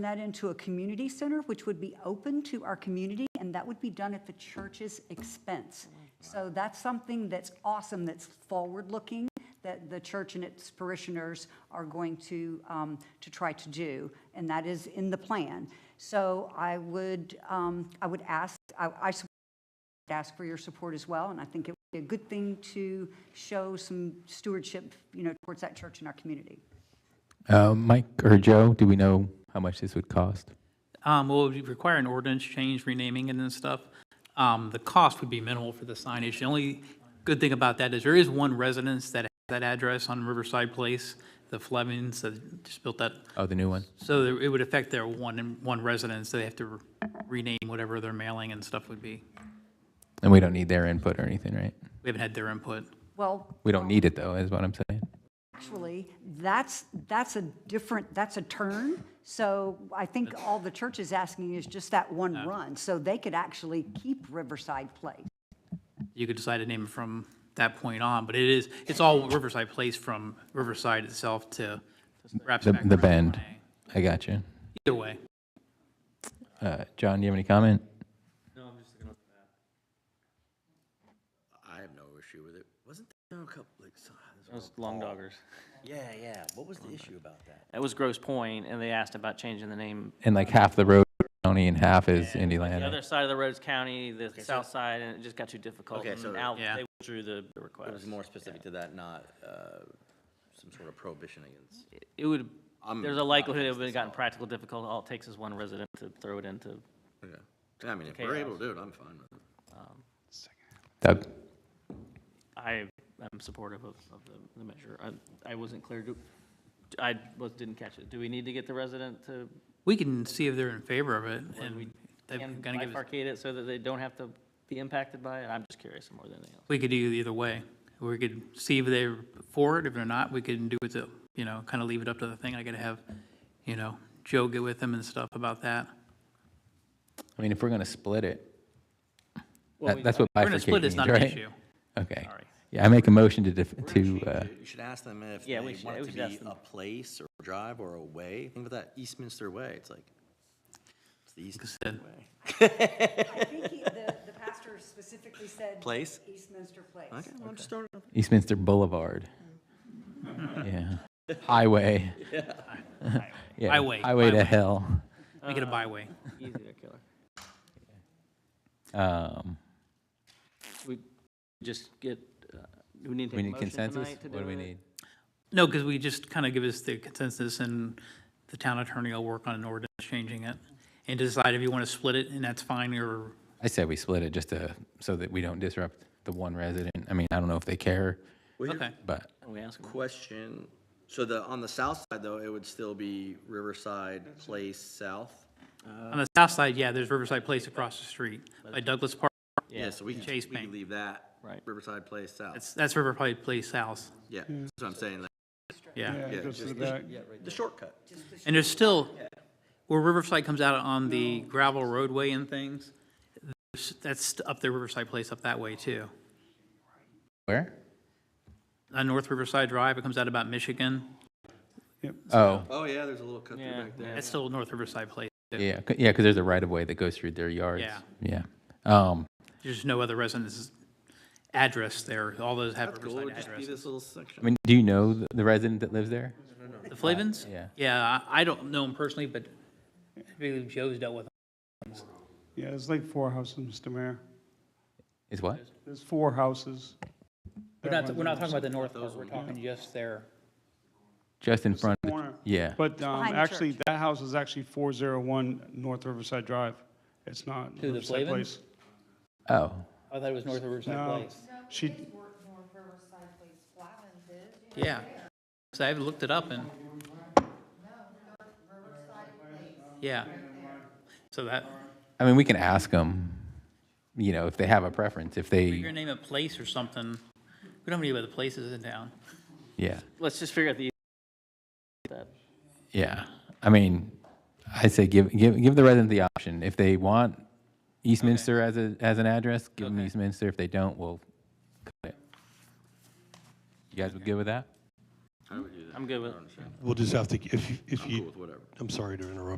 that into a community center, which would be open to our community, and that would be done at the church's expense. So that's something that's awesome, that's forward-looking, that the church and its parishioners are going to, um, to try to do, and that is in the plan. So I would, um, I would ask, I, I support ask for your support as well, and I think it would be a good thing to show some stewardship, you know, towards that church in our community. Uh, Mike or Joe, do we know how much this would cost? Um, well, it would require an ordinance change, renaming it and stuff. Um, the cost would be minimal for the signage. The only good thing about that is there is one residence that has that address on Riverside Place, the Flemings, that just built that. Oh, the new one. So there- it would affect their one, one residence, so they have to re- rename whatever their mailing and stuff would be. And we don't need their input or anything, right? We haven't had their input. Well, We don't need it though, is what I'm saying. Actually, that's, that's a different, that's a turn. So I think all the church is asking is just that one run. So they could actually keep Riverside Place. You could decide to name it from that point on, but it is, it's all Riverside Place from Riverside itself to wraps The, back the around bend. Lanai. I got you. Either way. Uh, John, do you have any comment? I have no issue with it. Wasn't there a couple, like, so- It was Long Doggers. Oh. yeah, yeah, what was the issue about that? It was Gross Point, and they asked about changing the name. And like half the road is county and half is Indyland. The right? other side of the road's county, the south side, and it just got too difficult. Okay, and so- now Yeah. They withdrew the the It was request. more specific to that, not, uh, some sort of prohibition against. It would, I'm there's a not likelihood it against would have this gotten practical difficult. All it takes is one resident to throw it into. uh, Okay. I mean, if we're able Chaos. to do it, I'm fine with it. Doug? I am supportive of, of the, the measure. I, I wasn't clear, do, I was, didn't catch it. Do we need to get the resident to, We can see if they're in favor of it, and they're and gonna give us, bifurcate it so that they don't have to be impacted by it? I'm just curious more than anything else. we could do it either way. We could see if they're for it, if they're not, we can do it to, you know, kind of leave it up to the thing. I gotta have, you know, Joe get with them and stuff about that. I mean, if we're gonna split it, Well, that- we- that's what We're gonna bifurcating split, it's means, not an right? issue. Okay. Sorry. Yeah, I make a motion to, def- to, uh, You should ask them if they Yeah, we should- want we it to should ask be them. a place or a drive or a way. Think about that Eastminster Way, it's like, it's the Eastminster said- Way. I think he- the, the pastor specifically said. Place? Eastminster Place. Okay, well, I'm just throwing it up. Eastminster Boulevard. Yeah. Highway. Yeah. Highway, Highway to highway. hell. Make it a byway. Easy to killer. Um, We just get, uh, do we need to we take a need motion consensus? tonight to do What do we it? need? No, because we just kind of give us the consensus, and the town attorney will work on an ordinance changing it, and decide if you want to split it, and that's fine, or I said we split it just to, so that we don't disrupt the one resident. I mean, I don't know if they care, Okay. but Can we ask 'em? Question, so the, on the south side though, it would still be Riverside Place South? On the south side, yeah, there's Riverside Place across the street by Douglas Park. Yeah, so we can, we Chase can Bank. leave that. Right. Riverside Place South, That's, that's Riverside Place South, yeah, that's what I'm saying, like, yeah. yeah, goes to just the back. the shortcut. And there's still, where Riverside comes out on the gravel roadway and things, there's- that's up there Riverside Place up that way too. where? On North Riverside Drive, it comes out about Michigan, Oh, Oh, yeah, there's a little cut through Yeah, back there. that's still North Riverside Place. too. yeah, 'cause- yeah, because there's a right of way that goes through their yards. Yeah. Yeah. Um, There's no other residence address there, all those have That's cool, it Riverside would just be addresses. this little I section. mean, do you know the, the resident that lives there? The Flavins? Yeah. Yeah, I I don't know him personally, but I believe Joe's dealt with him. Yeah, it's like four houses, Mr. Mayor. Is what? There's four houses. We're That not, one's we're not on talking about the north part, we're talking just there. Just in the front. of the- corner. Yeah. But um, behind the actually, that house is actually 401 North Riverside Drive. It's not the Riverside Flavin? Place. Oh, I thought it was North Riverside No, Place. she, Yeah. So I looked it up and. Yeah. So that, I mean, we can ask them, you know, if they have a preference, if you're gonna they, name a place or something. We don't need about the places in town. yeah, Let's just figure out the, e- that, yeah. I mean, I say give, give, give the resident the option. If they want Eastminster as a, as an address, give them Okay. Eastminster. If they don't, we'll cut it. You guys good with that? I would do that. I'm good with, I don't understand. We'll just have to, if, you- if I'm cool you, with whatever. I'm sorry to interrupt,